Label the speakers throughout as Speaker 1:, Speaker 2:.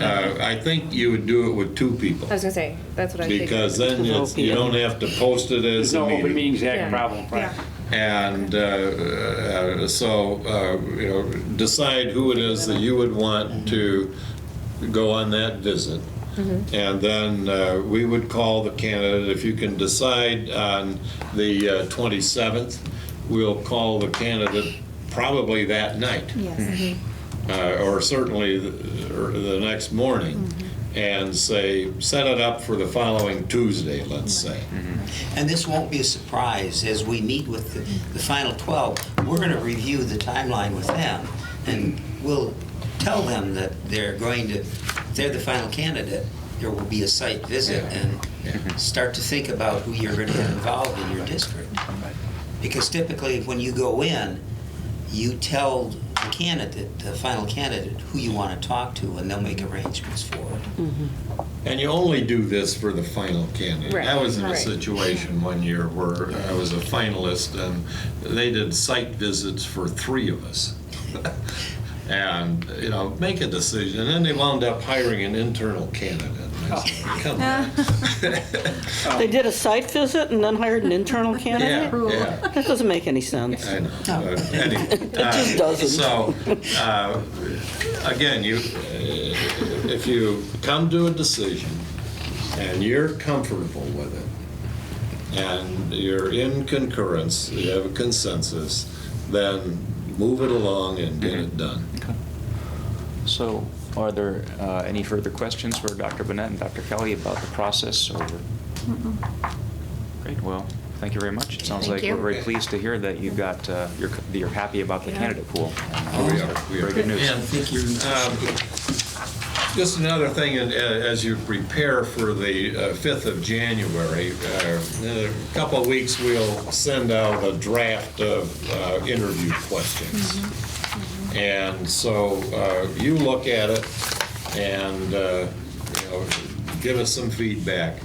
Speaker 1: Uh, I think you would do it with two people,
Speaker 2: I was gonna say, that's what I think.
Speaker 1: because then it's, you don't have to post it as
Speaker 3: There's
Speaker 1: a
Speaker 3: no open
Speaker 1: meeting.
Speaker 3: meetings
Speaker 2: Yeah.
Speaker 3: act problem, right?
Speaker 2: Yeah.
Speaker 1: And uh, uh, so, uh, you know, decide who it is that you would want to go on that visit. And then uh, we would call the candidate, if you can decide on the uh, 27th, we'll call the candidate probably that night.
Speaker 4: Yes.
Speaker 1: uh, or certainly the, or the next morning, and say, set it up for the following Tuesday, let's say.
Speaker 5: And this won't be a surprise, as we meet with the, the final 12, we're going to review the timeline with them, and we'll tell them that they're going to, if they're the final candidate, there will be a site visit, and start to think about who you're going to get involved in your district. Because typically, when you go in, you tell the candidate, the final candidate, who you want to talk to, and they'll make arrangements for it.
Speaker 1: And you only do this for the final candidate.
Speaker 2: Right,
Speaker 1: I was in a
Speaker 2: right.
Speaker 1: situation one year where I was a finalist, and they did site visits for three of us. And, you know, make a decision, and then they wound up hiring an internal candidate. And I said,
Speaker 2: Oh.
Speaker 1: Come on.
Speaker 6: They did a site visit and then hired an internal
Speaker 1: Yeah,
Speaker 6: candidate?
Speaker 1: yeah.
Speaker 6: That doesn't make any sense.
Speaker 1: I know. but anyway,
Speaker 6: Oh. just
Speaker 1: uh,
Speaker 6: doesn't.
Speaker 1: So, uh, again, you, uh, if you come to a decision and you're comfortable with it, and you're in concurrence, you have a consensus, then move it along and get
Speaker 7: Mm-hmm.
Speaker 1: it done.
Speaker 3: So,
Speaker 7: Are there uh, any further questions for Dr. Burnett and Dr. Kelly about the process? or- Great, well, thank you very much. It sounds like
Speaker 4: Thank
Speaker 7: we're
Speaker 4: you.
Speaker 7: very pleased to hear that you've got, uh, you're that you're happy about the
Speaker 4: Yeah.
Speaker 7: candidate pool.
Speaker 1: We are, we are.
Speaker 7: Very good news.
Speaker 1: And um, Just another thing, and, uh, as you prepare for the uh, 5th of January, uh, in a couple of weeks, we'll send out a draft of uh, interview questions. And so uh, you look at it and, uh, you know, give us some feedback,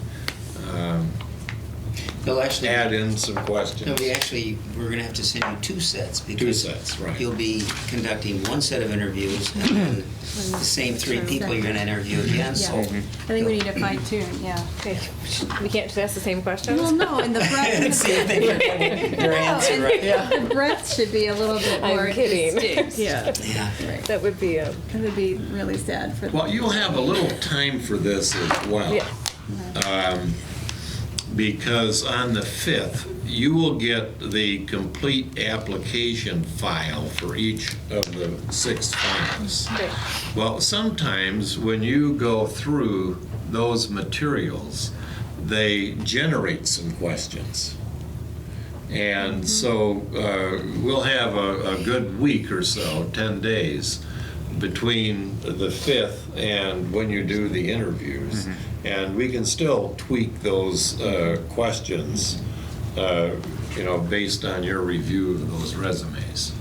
Speaker 1: um,
Speaker 5: They'll actually.
Speaker 1: add in some
Speaker 5: No,
Speaker 1: questions.
Speaker 5: we actually, we're gonna have to send you two sets. because
Speaker 1: sets, right.
Speaker 5: You'll be conducting one set of interviews, and then the same three people you're gonna interview again, so.
Speaker 4: Yeah. I think we need to fine tune, yeah.
Speaker 2: Okay. We can't just ask the same questions?
Speaker 4: Well, no, and the breadth,
Speaker 5: See if they can- Your answer, right?
Speaker 4: the breadth should be a little bit
Speaker 2: I'm
Speaker 4: more
Speaker 2: kidding.
Speaker 4: distinct. Yeah.
Speaker 5: Yeah,
Speaker 4: Right.
Speaker 2: That would be a,
Speaker 4: It would be really sad for
Speaker 1: Well,
Speaker 4: them.
Speaker 1: you'll have a little time for this as well. Um,
Speaker 2: yeah.
Speaker 1: because on the 5th, you will get the complete application file for each of the six finalists.
Speaker 2: Great.
Speaker 1: Well, sometimes when you go through those materials, they generate some questions. And so uh, we'll have a, a good week or so, 10 days, between the 5th and when you do the interviews.
Speaker 3: Mm-hmm.
Speaker 1: And we can still tweak those uh, questions, uh, you know, based on your review of those resumes.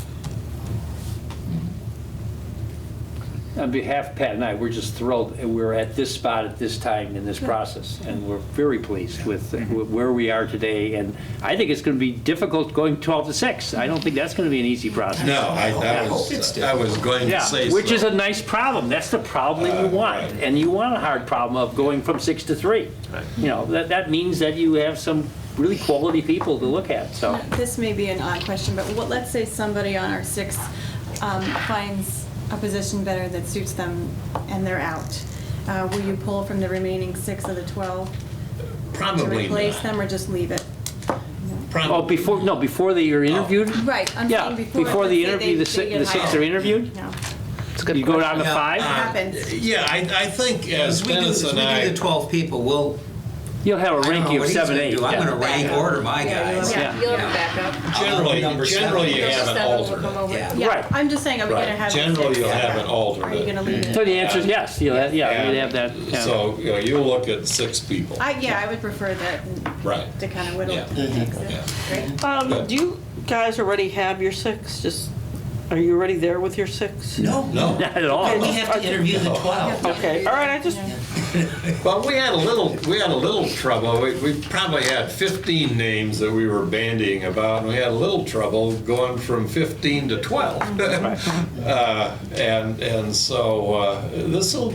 Speaker 3: on behalf of Pat and I, we're just thrilled that we're at this spot at this time in this process, and we're very pleased with
Speaker 1: Mm-hmm.
Speaker 3: where we are today, and I think it's going to be difficult going 12 to 6. I don't think that's going to be an easy process.
Speaker 1: No, I,
Speaker 5: I
Speaker 1: that
Speaker 5: hope it's
Speaker 1: was, I
Speaker 5: different.
Speaker 1: was going to say
Speaker 3: Yeah,
Speaker 1: so.
Speaker 3: which is a nice problem. That's the problem that you want.
Speaker 1: right.
Speaker 3: And you want a hard problem of going from six to three.
Speaker 1: Right.
Speaker 3: You know, that, that means that you have some really quality people to look at, so.
Speaker 4: This may be an odd question, but what, let's say somebody on our six um, finds a position better that suits them and they're out. Uh, Will you pull from the remaining six of the 12 to
Speaker 1: Probably
Speaker 4: replace
Speaker 1: not.
Speaker 4: them or just leave it?
Speaker 3: Oh,
Speaker 1: Probably
Speaker 3: before, no, before they are interviewed?
Speaker 1: Oh.
Speaker 4: Right, I'm
Speaker 3: Yeah,
Speaker 4: saying before.
Speaker 3: before the
Speaker 4: let's say
Speaker 3: interview,
Speaker 4: they-
Speaker 3: the
Speaker 4: they
Speaker 3: six,
Speaker 4: get
Speaker 3: the six
Speaker 4: hired.
Speaker 3: are interviewed?
Speaker 4: No,
Speaker 3: You go down to
Speaker 1: Yeah.
Speaker 5: Uh,
Speaker 3: five?
Speaker 4: happens.
Speaker 1: Yeah, I, I think as
Speaker 5: As we do,
Speaker 1: Dennis
Speaker 5: as
Speaker 1: and
Speaker 5: we do
Speaker 1: I,
Speaker 5: the 12 people, we'll,
Speaker 3: You'll have a
Speaker 5: I don't know
Speaker 3: ranking
Speaker 5: what
Speaker 3: of
Speaker 5: he's
Speaker 3: seven,
Speaker 5: gonna
Speaker 3: eight.
Speaker 5: do. I'm
Speaker 3: yeah.
Speaker 5: gonna rank order my guys.
Speaker 3: Yeah.
Speaker 2: Yeah, you'll have a backup.
Speaker 1: generally,
Speaker 5: Number seven.
Speaker 1: generally you
Speaker 2: Those
Speaker 1: have an
Speaker 2: seven will come
Speaker 1: alternate.
Speaker 2: over.
Speaker 5: Yeah.
Speaker 4: Yeah,
Speaker 3: Right.
Speaker 4: I'm just saying, are we
Speaker 1: Right.
Speaker 4: gonna have?
Speaker 1: Generally, you'll have an
Speaker 4: Are you gonna
Speaker 1: alternate.
Speaker 4: leave it?
Speaker 3: So the answer is yes, you'll have, yeah, you'd have that. yeah.
Speaker 1: So, you know, you'll look at six people.
Speaker 4: I, yeah, I would prefer that and-
Speaker 1: Right.
Speaker 4: to kind of whittle
Speaker 1: Yeah.
Speaker 4: it to six.
Speaker 1: Yeah.
Speaker 6: Um, Do you guys already have your six? Just, are you already there with your six?
Speaker 5: No,
Speaker 1: No,
Speaker 3: Not at all.
Speaker 5: we have to interview the 12.
Speaker 6: Okay, all right, I just,
Speaker 1: well, we had a little, we had a little trouble. We, we probably had 15 names that we were bandying about, and we had a little trouble going from 15 to 12. Uh, And, and so this will